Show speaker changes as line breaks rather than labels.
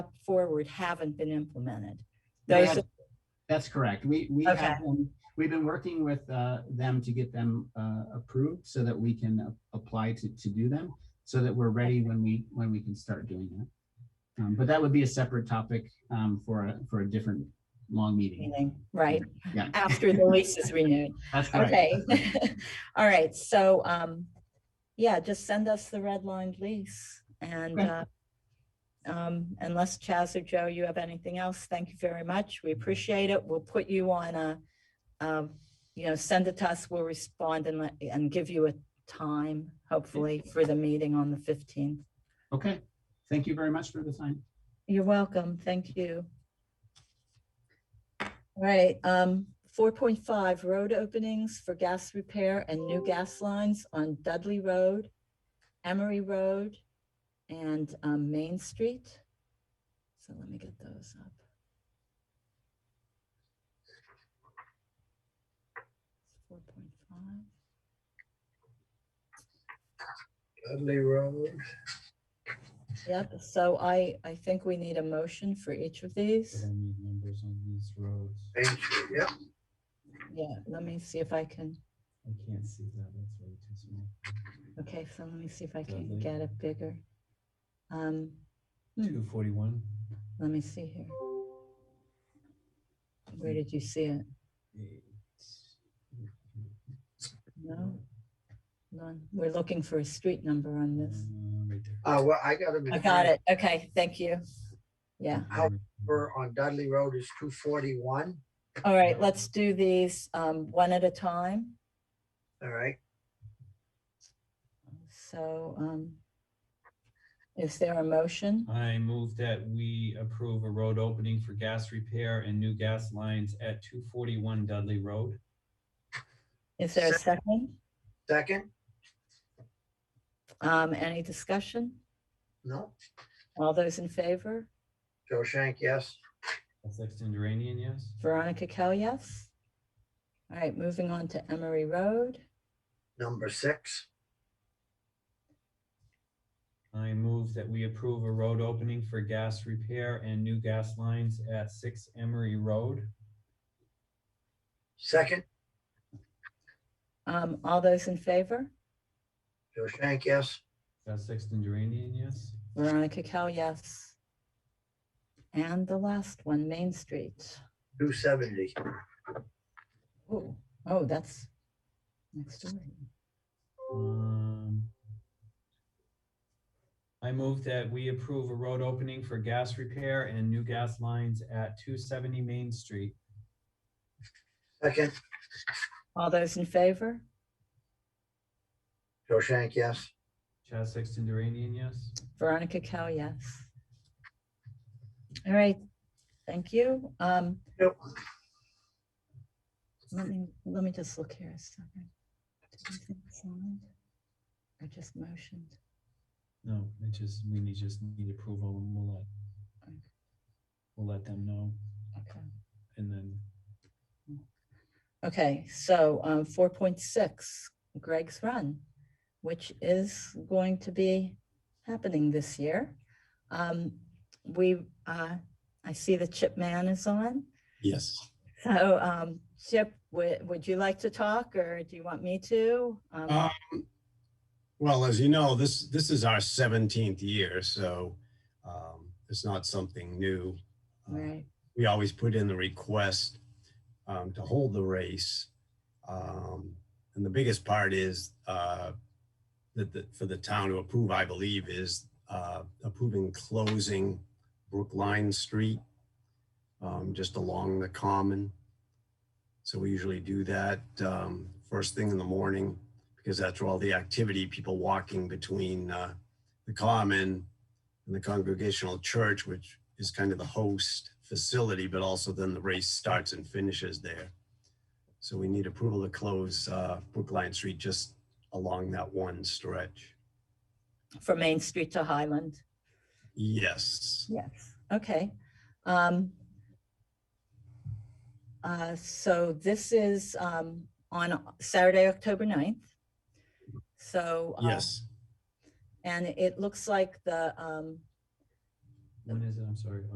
forward haven't been implemented.
They
Those,
had- That's correct. We, we
Okay.
have, them- we've been working with uh, them to get them uh, approved so that we can a- apply to, to do them, so that we're ready when we, when we can start doing that. Um, But that would be a separate topic um, for, a for a different long meeting.
meaning, right,
Yeah.
after the lease is renewed.
That's correct.
Okay. All right, so, um, yeah, just send us the redlined lease and,
Okay.
uh, um, unless Chaz or Joe, you have anything else, thank you very much. We appreciate it. We'll put you on a, um, you know, send it to us. We'll respond and let, and give you a time, hopefully, for the meeting on the fifteenth.
Okay. Thank you very much for the time.
You're welcome. Thank you. All right, um, four point five, road openings for gas repair and new gas lines on Dudley Road, Emery Road, and, um, Main Street. So let me get those up. Four point five.
Dudley Road.
Yep, so I, I think we need a motion for each of these.
I need numbers on these roads.
Main Street, Yep,
Yeah, let me see if I can.
I can't see that, that's way too small.
Okay, so let me see if I can
Dudley.
get it bigger. Um, Hmm.
Two forty-one,
let me see here. Where did you see it?
eight.
No, none. We're looking for a street number on this.
Um, Right there.
uh, well, I got them.
I got it. Okay, thank you. Yeah,
Number on Dudley Road is two forty-one,
all right, let's do these um, one at a time.
all right?
So um, is there a motion?
I move that we approve a road opening for gas repair and new gas lines at two forty-one Dudley Road.
Is there a second?
Second,
Um, Any discussion?
no,
All those in favor?
Joe Shank, yes,
Sexton Duranian, yes?
Veronica Kell, yes. All right, moving on to Emery Road.
number six,
I move that we approve a road opening for gas repair and new gas lines at six Emery Road.
second,
Um, all those in favor?
Joe Shank, yes,
Sexton Duranian, yes?
Veronica Kell, yes. And the last one, Main Street.
two seventy,
Oh, oh, that's next door.
Um, I move that we approve a road opening for gas repair and new gas lines at two seventy Main Street.
second,
All those in favor?
Joe Shank, yes,
Chaz Sexton Duranian, yes?
Veronica Kell, yes. All right, thank you. Um,
Yep.
let me, let me just look here a second. Did we think signed? I just motioned.
No, it just, we need, just need approval and we'll let, we'll let them know
Okay.
and then
Okay, so um, four point six, Greg's Run, which is going to be happening this year. Um, we, uh, I see the Chip Man is on.
Yes.
So um, Chip, would, would you like to talk or do you want me to? Um,
Um, well, as you know, this this is our seventeenth year, so um, it's not something new. Uh,
Right,
We always put in the request um, to hold the race, um, and the biggest part is uh, that the, for the town to approve, I believe, is uh, approving closing Brookline Street um, just along the common. So we usually do that um, first thing in the morning because that's where all the activity, people walking between uh, the common and the congregational church, which is kind of the host facility, but also then the race starts and finishes there. So we need approval to close uh, Brookline Street just along that one stretch.
from Main Street to Highland.
Yes.
Yes. Okay. Um, uh, so this is, um, on Saturday, October 9th. So. uh,
Yes.
um, And it looks like the, um,
When is it? I'm sorry.